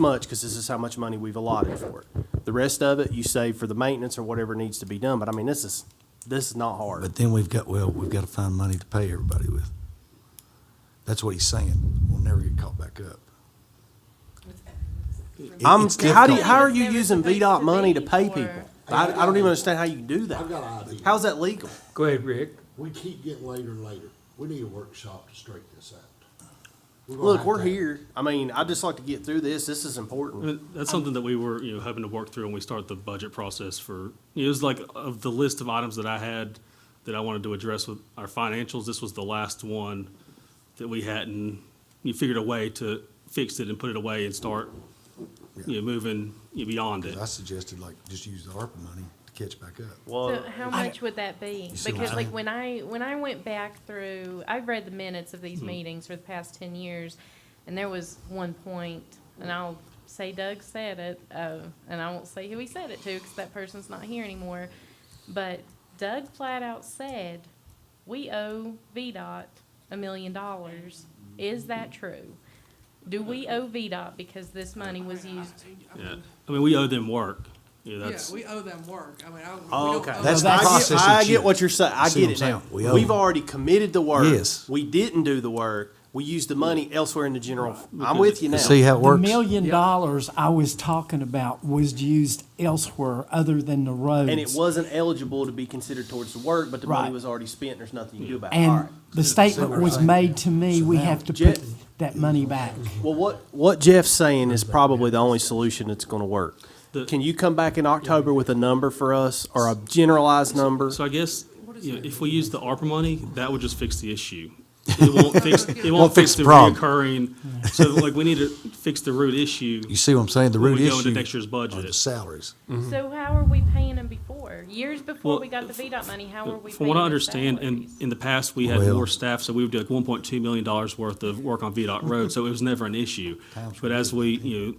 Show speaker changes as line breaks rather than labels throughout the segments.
much, because this is how much money we've allotted for it. The rest of it, you save for the maintenance or whatever needs to be done, but I mean, this is, this is not hard.
But then we've got, well, we've got to find money to pay everybody with. That's what he's saying. We'll never get caught back up. It-
I'm,
it's
how do, you-
difficult.
how are you
There was
using
supposed
VDOT
to
money to
be
pay
for-
people? I, I don't even understand how you can do that.
I've got an idea.
How's that legal?
Go ahead, Rick.
We keep getting later and later. We need a workshop to straighten this out. gonna
Look,
have
we're
to-
here. I mean, I'd just like to get through this. This is
Uh,
important.
But That's something that we were, you know, hoping to work through when we start the budget process for, you know, it was like of the list of items that I had that I wanted to address with our financials, this was the last one that we hadn't, you figured a way to fix it and put it away and start, you know, moving you know, beyond it.
I suggested like, just use the ARPA money to catch back up.
Well,
So how much would that be?
You see what
Because
I'm
like
saying?
when I, when I went back through, I've read the minutes of
Hmm.
these meetings for the past ten years, and there was one point, and I'll say Doug said it, uh, and I won't say who he said it to, because that person's not here anymore. But Doug flat out said, we owe VDOT a million dollars. Is that true? Do we owe VDOT because this money was used?
Yeah. I mean, we owe them work. Yeah,
Yeah,
that's,
we owe them work. I mean, I. we
oh,
don't
okay.
owe
That's
them-
the
I get-
process
I
that you-
get what you're saying. I
See what
get it
I'm
now.
saying? We owe
We've
them.
already committed the work.
Yes.
We didn't do the work. We used the money elsewhere in the general. I'm with you now.
See how it
The
works?
million dollars I was talking about was used elsewhere other than the roads.
And it wasn't eligible to be considered towards the work, but the money
Right.
was already spent. There's nothing you do about it. All
And
right.
the statement was made to me, we have to
Jet-
put that money back.
Well, what, what Jeff's saying is probably the only solution that's gonna work.
The-
Can you come back in October with a number for us or a generalized number?
so I guess, you know, if we use the ARPA money, that would just fix the issue. It won't fix, it won't fix the
problem.
reoccurring, so like, we need to fix the root issue.
You see what I'm saying? The
When
root
we go into
issue
next year's budget.
are the salaries.
So how are we paying them before? Years before
Mm-hmm. Well,
we got the VDOT money, how were we paying
From what I
their
understand, in,
salaries?
in the past, we had
Well-
more staff, so we would do like one point two million dollars worth of work on VDOT road, so it was never an issue.
Times
But
were
as we, you know,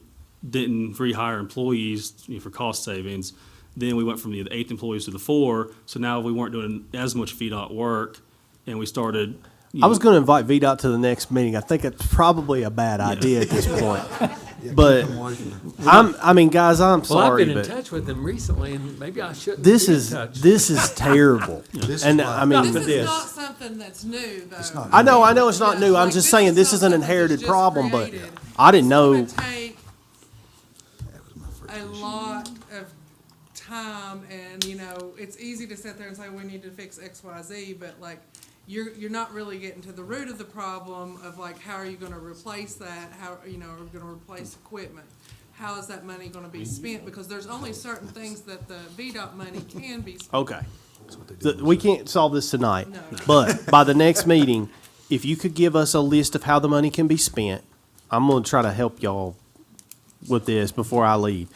didn't rehire employees you know, for cost savings, then we went from the eight employees to the four, so now we weren't doing as much VDOT work, and we started. you
I was
know,
gonna invite VDOT to the next meeting. I think it's probably a bad idea at this point. But I'm, I mean, guys, I'm
Well, I've
sorry,
been in
but
touch with them recently, and maybe I shouldn't.
this
be in
is,
touch.
this is terrible.
This
And
is why-
I mean,
This
but
is
this,
not something that's new, though.
not
I know, I know it's not
Yeah,
new. I'm
like,
just saying this is an
something that's
inherited
just
problem, but
created.
I didn't
It's gonna
know.
take A lot of time and, you know, it's easy to sit there and say, we need to fix X, Y, Z, but like, you're, you're not really getting to the root of the problem of like, how are you gonna replace that? How, you know, are we gonna replace equipment? How is that money gonna be spent? Because there's only certain things that the VDOT money can be spent.
Okay. The- We can't solve this tonight,
No.
but by the next meeting, if you could give us a list of how the money can be spent, I'm gonna try to help y'all with this before I leave.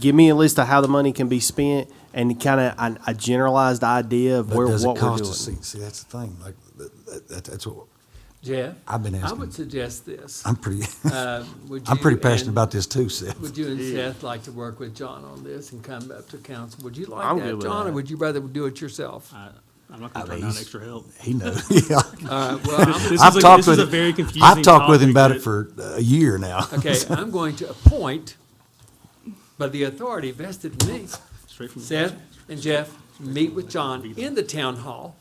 Give me a list of how the money can be spent and kind of a, a generalized idea of
But
where,
does it
what we're
cost us?
doing.
See, see, that's the thing, like, that, that, that's what,
Jeff.
I've been
I
asking.
would suggest this.
I'm pretty,
Uh, would
I'm
you
pretty passionate
and-
about this too, Seth.
Would you and Seth like to work with John on this and come up to council? Would you
I'm
like
good
that,
with
John, or
that. Uh.
would you rather do it yourself?
I- I'm not gonna
I mean,
turn down
he's-
extra help.
He knows, yeah.
All right, well, I'm-
This is
I've
a-
talked
this is
with
a
him-
very confusing
I've talked with him about
topic
it
that-
for a year now.
okay, I'm going to appoint by the authority vested in me.
Straight from the
Seth and Jeff meet with John in the town hall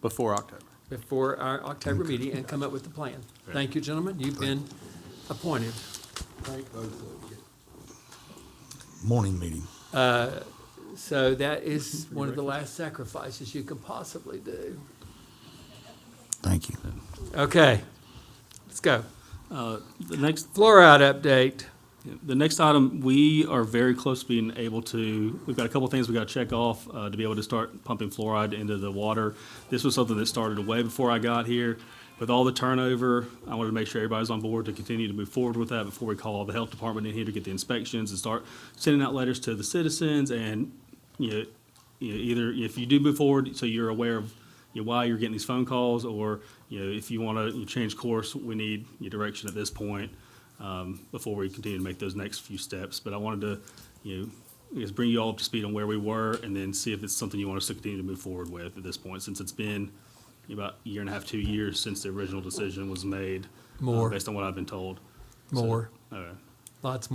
Before October.
before our October meeting and come up with the plan. Thank you, gentlemen. You've been appointed.
Thank both of you.
Morning meeting.
So that is one of the last sacrifices you can possibly do.
Thank you.
Okay, let's go.
The next,
Fluoride update.
The next item, we are very close to being able to, we've got a couple things we gotta check off, uh, to be able to start pumping fluoride into the water. This was something that started way before I got here. With all the turnover, I wanted to make sure everybody's on board to continue to move forward with that before we call the health department in here to get the inspections and start sending out letters to the citizens and, you know, you know, either if you do move forward, so you're aware of, you know, why you're getting these phone calls, or, you know, if you wanna you change course, we need your direction at this point um, before we continue to make those next few steps. But I wanted to, you know, I guess bring you all up to speed on where we were and then see if it's something you want us to continue to move forward with at this point, since it's been about a year and a half, two years since the original decision was made. uh,
More.
Based on what I've been told. So-
More.
All right.
Lots